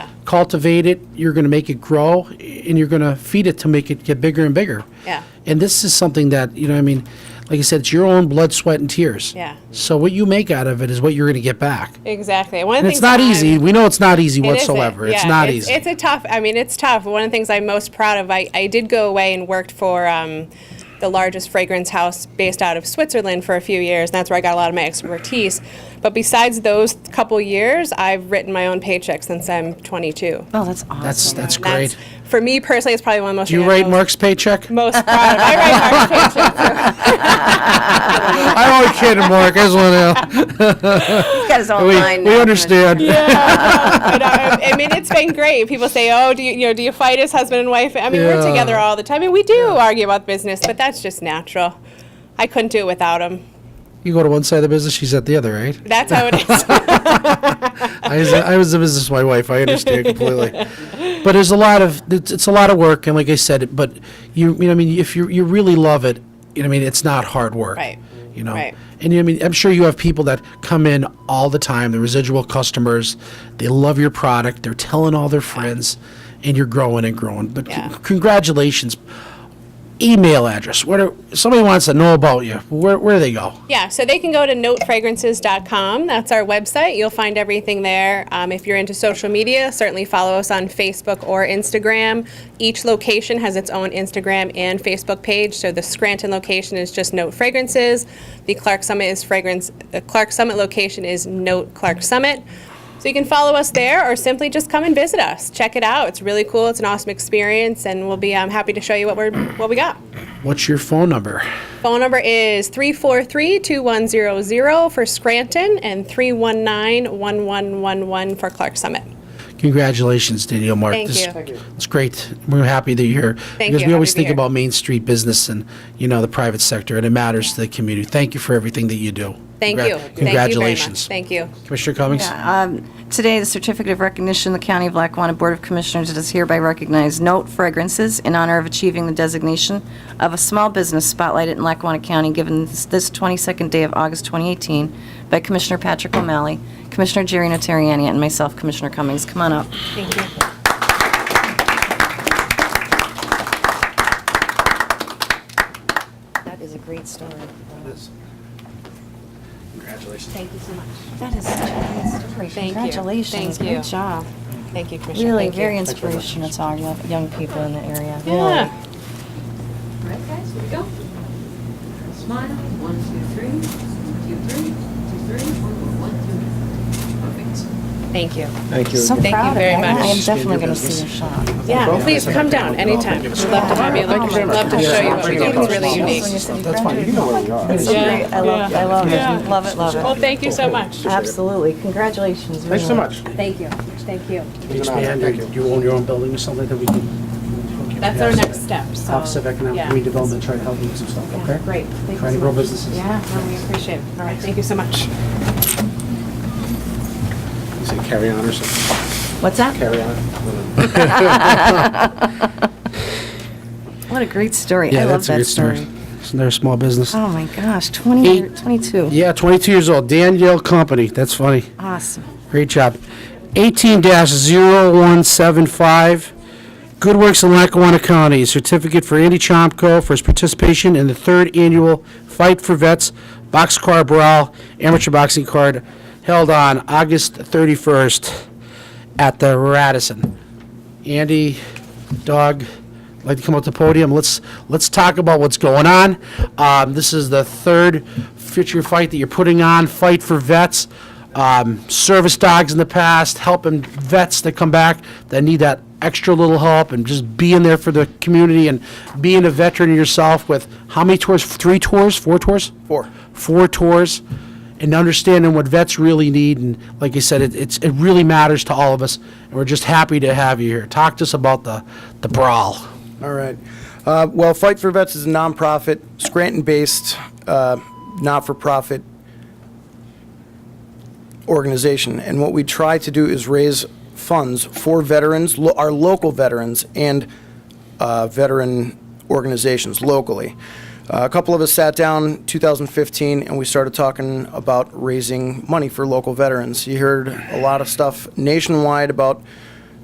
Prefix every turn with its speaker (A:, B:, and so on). A: cultivate it, you're going to make it grow, and you're going to feed it to make it get bigger and bigger.
B: Yeah.
A: And this is something that, you know, I mean, like I said, it's your own blood, sweat, and tears.
B: Yeah.
A: So what you make out of it is what you're going to get back.
B: Exactly. One of
A: And
B: the
A: it's
B: things
A: not
B: that I'm-
A: easy. We know it's not easy
B: It isn't.
A: whatsoever. It's
B: Yeah,
A: not
B: it's,
A: easy.
B: It's a tough. I mean, it's tough. One of the things I'm most proud of. I, I did go away and worked for um, the largest fragrance house based out of Switzerland for a few years, and that's where I got a lot of my expertise. But besides those couple years, I've written my own paycheck since I'm 22.
C: Oh, that's awesome.
A: That's, that's
B: And that's-
A: great.
B: for me personally, it's probably one of the most.
A: Do you
B: I'm
A: write
B: most-
A: Mark's paycheck?
B: Most proud. Of. I write Mark's paycheck.
A: I'm only kidding, Mark. I just want to,
C: He's got his own line.
A: we, we
C: now.
A: understand.
B: but, uh, I mean, it's been great. People say, "Oh, do you, you know, do you fight as husband and wife?" I mean,
A: Yeah.
B: we're together all the time, and we do argue about business, but that's just natural. I couldn't do it without him.
A: You go to one side of the business, she's at the other, right?
B: That's how it is.
A: I was, I was the business of my wife. I understand completely. But there's a lot of it's, it's a lot of work, and like I said, but you you know I mean if you you really love it, you know I mean it's not hard work.
B: Right.
A: You know.
B: Right.
A: And you know, I mean I'm sure you have people that come in all the time, the residual customers. They love your product. They're telling all their friends, and you're growing and growing. But c-
B: Yeah.
A: congratulations. Email address. What are, somebody wants to know about you? Where where do they go?
B: Yeah, so they can go to notefragrances.com. That's our website. You'll find everything there. Um, if you're into social media, certainly follow us on Facebook or Instagram. Each location has its own Instagram and Facebook page. So the Scranton location is just Note Fragrances. The Clark Summit is fragrance. The Clark Summit location is Note Clark Summit. So you can follow us there, or simply just come and visit us. Check it out. It's really cool. It's an awesome experience, and we'll be um, happy to show you what we're what we got.
A: What's your phone number?
B: Phone number is 343-2100 for Scranton and 319-1111 for Clark Summit.
A: Congratulations, Danielle Mark.
B: Thank
A: This-
B: you. Thank you.
A: It's great. We're happy that you're here.
B: Thank
A: Because
B: you.
A: we
B: Happy
A: always
B: to be
A: think
B: here.
A: about Main Street business and, you know, the private sector, and it matters to the community. Thank you for everything that you do.
B: Thank
A: Congra-
B: you.
A: Congratulations.
B: Thank you very much. Thank you.
A: Commissioner Cummings?
C: um, Today, the certificate of recognition, the County of Lackawanna Board of Commissioners does hereby recognize Note Fragrances in honor of achieving the designation of a small business spotlighted in Lackawanna County given this this 22nd day of August 2018 by Commissioner Patrick O'Malley, Commissioner Jerry Notariani, and myself, Commissioner Cummings. Come on up.
B: Thank you.
C: That is a great story.
A: Congratulations.
B: Thank you so much.
C: That is such a great story.
B: Thank you.
C: Congratulations.
B: Thank you.
C: Good job.
B: Thank you, Commissioner.
C: Really,
B: Thank you.
C: very inspirational to our young young people in the area. Really.
B: Yeah.
D: All right, guys, here we go. Smile, one, two, three, two, three, two, three, four, one, two. Perfect.
B: Thank you.
E: Thank you.
C: So
B: Thank you
C: proud of
B: very
C: that. I
B: much.
C: am definitely going to see your shop.
B: Yeah, please come down anytime. We'd love to have you. Like, We'd love to show you what we do. It's really unique.
C: That's fine, you know where we are. It's so
B: Yeah.
C: great, I love, I love it, love it,
B: Well,
C: love it.
B: thank you so much.
C: Absolutely, congratulations.
E: Thanks so
C: really.
E: much.
D: Thank you, thank you.
A: Expand, or Do you own your own building or something that we can?
B: That's our next step, so.
A: Office of Economic
B: yeah.
A: Redevelopment, try to help you with some stuff,
B: Yeah,
A: okay?
B: Great. Thank you
A: Trying to
B: so
A: grow
B: much.
A: businesses.
B: Yeah, no, we appreciate it. All right, thank you so much.
E: You say carry on or something?
C: What's that?
E: Carry on.
C: What a great story, I
A: Yeah,
C: love
A: that's a
C: that
A: good story.
C: story.
A: Isn't there a small business?
C: Oh my gosh, 20,
A: Eight.
C: 22,
A: Yeah, 22 years old, Danielle Company, that's funny.
C: awesome.
A: Great job. 18-0175, Good Works in Lackawanna County, certificate for Andy Chomko for his participation in the third annual Fight for Vets Boxcar Brawl Amateur Boxing Card held on August 31st at the Radisson. Andy, Doug, I'd like to come up to the podium. Let's, let's talk about what's going on. Um, this is the third future fight that you're putting on, Fight for Vets. Um, service dogs in the past, helping vets that come back that need that extra little help and just being there for the community and being a veteran yourself with how many tours? Three tours? Four tours?
E: Four.
A: Four tours and understanding what vets really need. And like I said, it, it's, it really matters to all of us. And we're just happy to have you here. Talk to us about the, the brawl.
F: All right. Uh, Well, Fight for Vets is a nonprofit, Scranton-based, uh, not-for-profit organization. And what we try to do is raise funds for veterans, lo- our local veterans, and uh, veteran organizations locally. Uh, A couple of us sat down 2015, and we started talking about raising money for local veterans. You heard a lot of stuff nationwide about